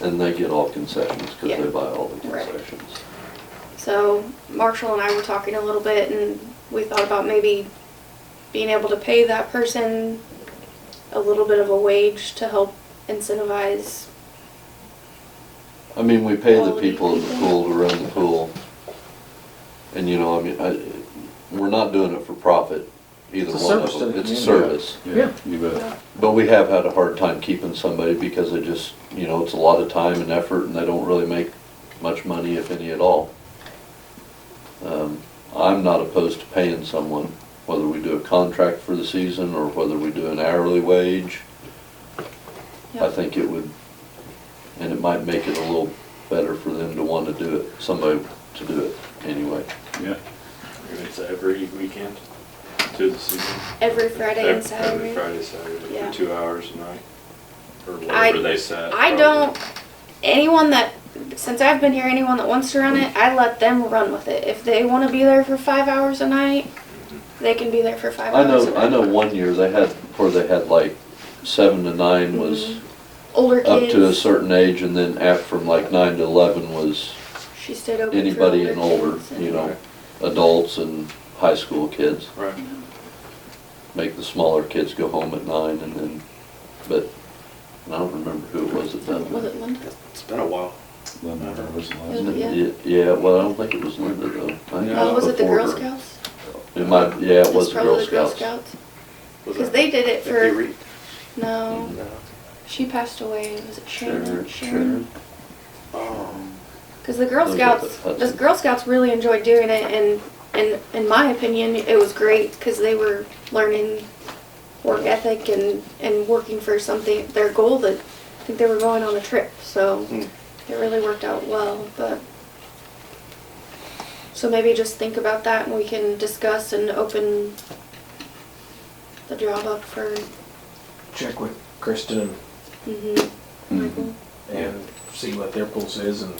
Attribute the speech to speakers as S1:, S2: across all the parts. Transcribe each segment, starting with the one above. S1: And they get all concessions because
S2: Yeah.
S1: they buy all the
S2: Right.
S1: concessions.
S2: So Marshall and I were talking a little bit and we thought about maybe being able to pay that person a little bit of a wage to help incentivize.
S1: I mean, we pay the
S2: Quality
S1: people at the
S2: people.
S1: pool to run the pool. And you know, I mean, I, we're not doing it for profit, either
S3: It's a
S1: one of
S3: service to
S1: them.
S3: the
S1: It's a
S3: community.
S1: service.
S3: Yeah.
S4: You bet.
S1: But we have had a hard time keeping somebody because they just, you know, it's a lot of time and effort and they don't really make much money, if any at all. Um, I'm not opposed to paying someone, whether we do a contract for the season or whether we do an hourly wage. I
S2: Yep.
S1: think it would, and it might make it a little better for them to want to do it, somebody to do it anyway.
S4: Yeah.
S5: It's every weekend to the season.
S2: Every Friday and
S5: Every- Every
S2: Saturday.
S5: Friday, Saturday,
S2: Yeah.
S5: for two hours a night, or
S2: I-
S5: whatever they set.
S2: I
S5: probably.
S2: don't, anyone that, since I've been here, anyone that wants to run it, I let them run with it. If they wanna be there for five hours a night, they can be there for five
S1: I
S2: hours a
S1: know,
S2: night.
S1: I know one year they had, where they had like seven to nine was
S2: Older kids.
S1: up to a certain age and then after from like nine to eleven was
S2: She stayed open for
S1: anybody and older,
S2: kids and-
S1: you know, adults and high school kids.
S5: Right.
S1: Make the smaller kids go home at nine and then, but I don't remember who it was
S2: Was
S1: that done
S2: it Linda?
S5: It's been a while.
S4: Then uh, there was the last
S2: Yeah.
S1: that.
S4: one.
S1: Yeah, yeah, well, I don't think it was Linda though. I think
S5: No.
S2: Oh, was it the
S1: before
S2: Girl
S1: her.
S2: Scouts?
S1: It might, yeah, it
S2: It's
S1: was the
S2: probably
S1: Girl Scouts.
S5: Was
S2: Because
S5: that-
S2: they did it
S5: Did they
S2: for,
S5: read?
S2: no,
S5: No.
S2: she passed away, was it Sharon?
S1: Mm-hmm. Sharon, Sharon.
S5: Oh.
S2: Because the Girl
S1: Those are
S2: Scouts,
S1: the
S2: the Girl Scouts really enjoyed doing it and, and in my opinion, it was great because they were learning work ethic and, and working for something, their goal that, I think they were going on a trip, so
S5: Hmm.
S2: it really worked out well, but. So maybe just think about that and we can discuss and open the job up for,
S3: Check with Kristen and-
S2: mhm,
S5: Mm-hmm.
S2: Michael.
S3: and see what their pulse is and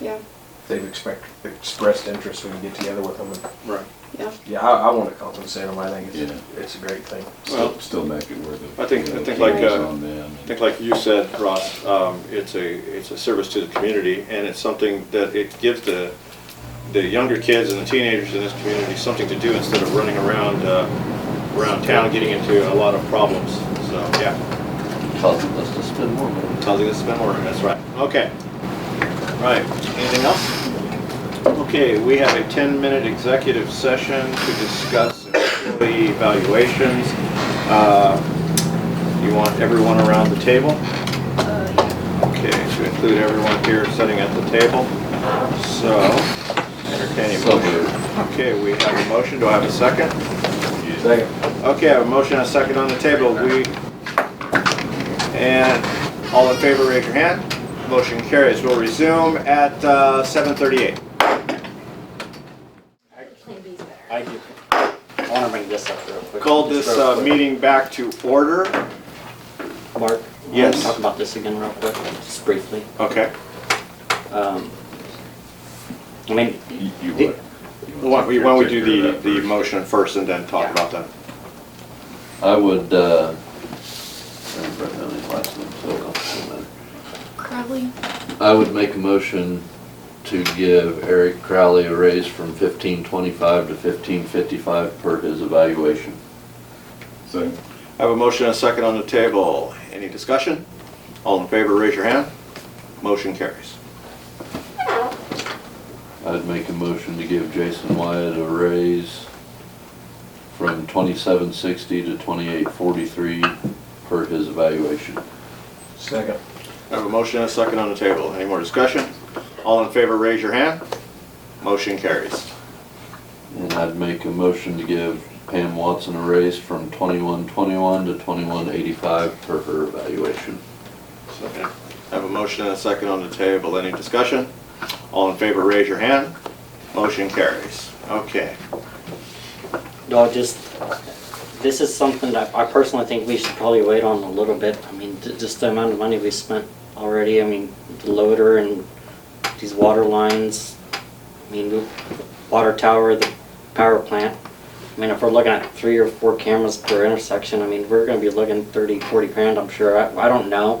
S2: Yeah,
S3: if they've expect, expressed interest, we can get together with them. and-
S5: Right.
S2: yeah.
S3: Yeah, I, I wanna compensate them, I think it's,
S4: Yeah.
S3: it's a great thing.
S5: Well-
S4: Still, still make it worth it.
S5: I think-
S4: you know,
S5: I think
S4: keep
S2: like,
S4: eyes
S5: uh,
S4: on them
S5: I
S4: and-
S5: think like you said, Ross, um, it's a, it's a service to the community and it's something that it gives the, the younger kids and the teenagers in this community something to do instead of running around, uh, around town getting into a lot of problems. So, yeah.
S1: Causing us to spend more money.
S5: Tells you to spend more, that's right. Okay. Right, anything else? Okay, we have a 10-minute executive session to discuss employee evaluations. Uh, You want everyone around the table? Okay, to include everyone here sitting at the table. So, entertaining
S1: So
S5: motion. Okay, we have a motion, do I have a second?
S3: Second.
S5: Okay, I have a motion and a second on the table. We, and all in favor, raise your hand. Motion carries. We'll resume at uh, 7:38.
S6: I do. I want to bring this up real quick.
S5: Called this
S6: Just real
S5: uh,
S6: quick.
S5: meeting back to order.
S6: Mark?
S5: Yes.
S6: Talk about this again real quick, just briefly.
S5: Okay.
S6: Um, I mean,
S4: You, you
S6: Did-
S4: what? You
S5: Why
S4: want
S5: don't
S4: to take care- take
S5: we why don't we do
S4: care
S5: the,
S4: of that
S5: the
S4: first?
S5: motion first and then talk
S6: Yeah.
S5: about that?
S1: I would, uh, I don't remember his last name, so it doesn't matter.
S2: Crowley,
S1: I would make a motion to give Eric Crowley a raise from fifteen twenty-five to fifteen fifty-five per his evaluation.
S4: So,
S5: I have a motion and a second on the table. Any discussion? All in favor, raise your hand. Motion carries.
S1: I'd make a motion to give Jason Wyatt a raise from twenty-seven sixty to twenty-eight forty-three per his evaluation.
S3: Second.
S5: I have a motion and a second on the table. Any more discussion? All in favor, raise your hand. Motion carries.
S1: And I'd make a motion to give Pam Watson a raise from twenty-one twenty-one to twenty-one eighty-five per her evaluation.
S5: Second. I have a motion and a second on the table. Any discussion? All in favor, raise your hand. Motion carries. Okay.
S6: no, just, this is something that I personally think we should probably wait on a little bit. I mean, th- just the amount of money we spent already, I mean, the loader and these water lines, I mean, the water tower, the power plant. I mean, if we're looking at three or four cameras per intersection, I mean, we're gonna be looking thirty, forty grand, I'm sure. I, I don't know.